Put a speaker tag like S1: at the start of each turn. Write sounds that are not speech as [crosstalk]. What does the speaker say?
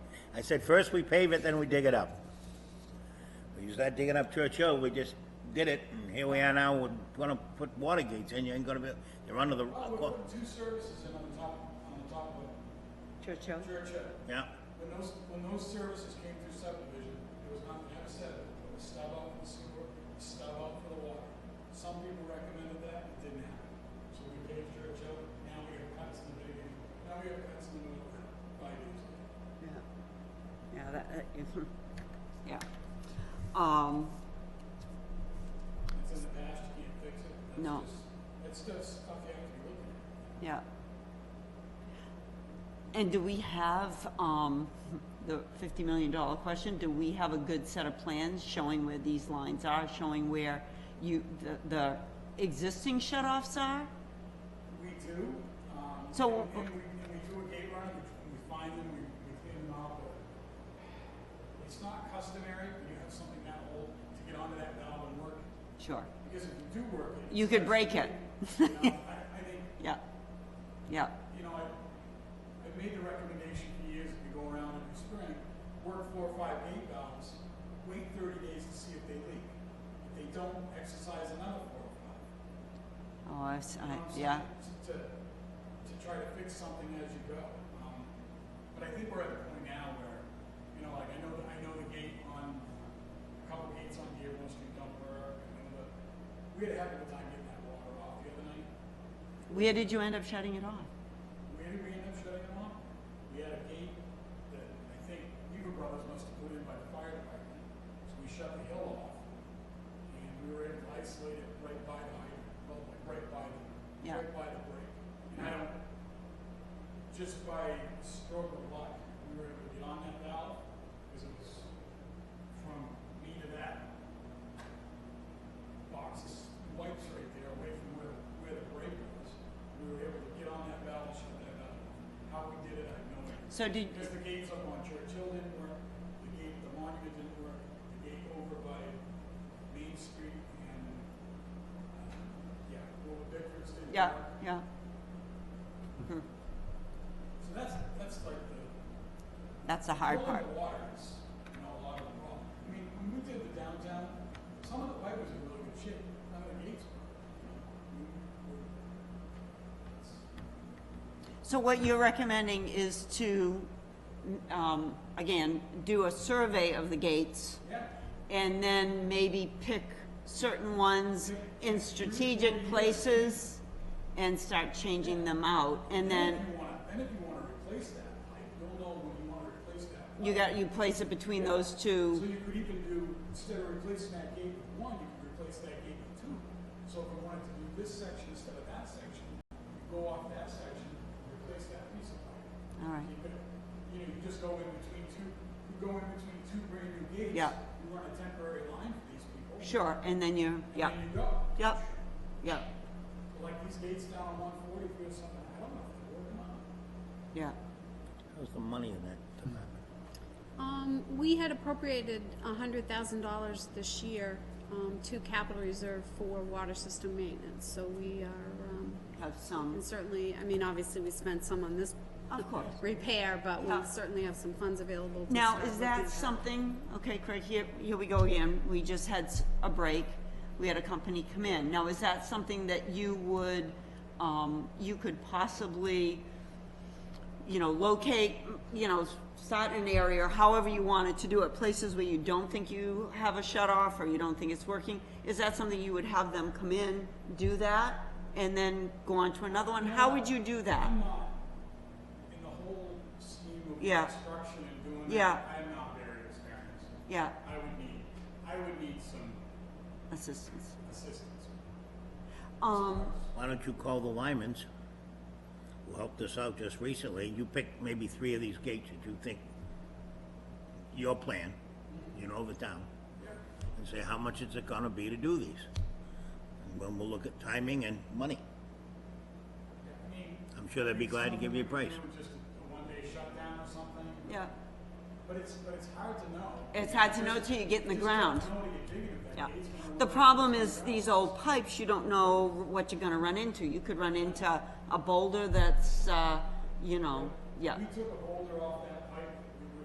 S1: I said, first we pave it, then we dig it up. We used that digging up Church Hill, we just did it, and here we are now, we're gonna put water gates in, you ain't gonna be, you're under the,
S2: Oh, we're putting two services in on the top, on the top of
S3: Churchill.
S2: Churchill.
S1: yeah,
S2: When those, when those services came through subdivision, there was nothing ever said, it was stub out for the sewer, stub out for the water. Some people recommended that, it didn't happen. So we paved Churchill, now we have cuts in the beginning, now we have cuts in the middle, five years.
S3: Yeah, yeah, that, that- [laughs] yeah. Um,
S2: It's in the past, you can't fix it. That's
S3: No.
S2: just- That's just stuff you have to be looking at.
S3: yeah. And do we have, um, the fifty million dollar question, do we have a good set of plans showing where these lines are, showing where you, the, the existing shut-offs are?
S2: We do, um, and
S3: So-
S2: and we, and we do a gate run, we we find them, we, we clean them out, but it's not customary, when you have something that old, to get onto that valve and work, it.
S3: Sure,
S2: because if you do work it.
S3: You
S2: it's
S3: could break
S2: actually- You
S3: [laughs]
S2: know, I, I think,
S3: yeah, yeah,
S2: you know, I, I made the recommendation for years, if you go around every spring, work four or five gate valves, wait thirty days to see if they leak. If they don't, exercise another four or five.
S3: oh, I, s-
S2: You know what
S3: I-
S2: I'm
S3: yeah,
S2: saying? To, to try to fix something as you go. Um, But I think we're at the point now where, you know, like, I know, I know the gate on, a couple gates on Dearborn Street don't work, and then the, we had a heck of a time getting that water off the other night.
S3: where did you end up shutting it off?
S2: Where did we end up shutting it off? We had a gate that I think Weaver Brothers must have put in by the fire department, so we shut the hill off. And we were able to isolate it right by the hydrant, well, like right by the,
S3: Yeah.
S2: right by the break. And I don't, just by stroke of luck, we were able to get on that valve, because it was from me to that boxes, wipes right there away from where, where the break was. We were able to get on that valve, shut that out. How we did it, I have no idea.
S3: So did,
S2: Because the gates up on Churchill didn't work, the gate, the monument didn't work, the gate over by Main Street and, uh, yeah, over Bickford's didn't
S3: yeah,
S2: work.
S3: yeah,
S2: So that's, that's like the.
S3: that's the hard part,
S2: Controlling the water is, you know, a lot of the problem. I mean, when we did the downtown, some of the pipe was in really good shape, none of the gates were. We- we- it's-
S3: So what you're recommending is to, um, again, do a survey of the gates
S2: Yeah.
S3: and then maybe pick certain ones in strategic places and start changing them out. And
S2: If
S3: then
S2: you wanna, then if you wanna replace that pipe, you'll know when you wanna replace that. pipe.
S3: you got, you place it between those
S2: So
S3: two.
S2: you could even do, instead of replacing that gate with one, you could replace that gate with two. So if you wanted to do this section instead of that section, you go off that section, replace that piece of pipe.
S3: All right.
S2: You could, you know, you just go in between two, you go in between two brand new gates.
S3: Yeah.
S2: You run a temporary line for these people.
S3: Sure, and then you, yep,
S2: And then you go.
S3: yep, yep,
S2: Like these gates down on one forty, if you have something, I don't know if they're working on.
S3: yeah.
S1: how's the money in that department?
S4: Um, we had appropriated hundred thousand dollars this year, um, to capital reserve for water system maintenance, so we are, um,
S3: Have some,
S4: and certainly, I mean, obviously, we spent some on this
S3: of course.
S4: repair, but we
S3: Yeah.
S4: certainly have some funds available to
S3: Now,
S4: start
S3: is
S4: looking
S3: that
S4: at.
S3: something, okay, Craig, here, here we go again, we just had s- a break, we had a company come in. Now, is that something that you would, um, you could possibly, you know, locate, you know, start an area, or however you wanted to do it, places where you don't think you have a shut off or you don't think it's working? Is that something you would have them come in, do that, and then go on to another one? How would you do that?
S2: I'm not, in the whole scheme of
S3: Yeah.
S2: construction and doing
S3: Yeah.
S2: that, I'm not very experienced.
S3: Yeah,
S2: I would need, I would need some
S3: assistance.
S2: assistance.
S3: Um,
S1: Why don't you call the Lymans, who helped us out just recently, you pick maybe three of these gates that you think your plan, you know the town, and say, how much is it gonna be to do these? And then we'll look at timing and money.
S2: I mean.
S1: I'm sure they'd be glad to give you a price.
S2: Some of them Just a one-day shutdown or something,
S3: yeah.
S2: but it's, but it's hard to know.
S3: It's hard to know till you get in the ground.
S2: Just don't know till you dig it, if that
S3: Yeah.
S2: gate's gonna work.
S3: The problem is these old pipes, you don't know what you're gonna run into. You could run into a boulder that's, uh, you know, yeah,
S2: We took a boulder off that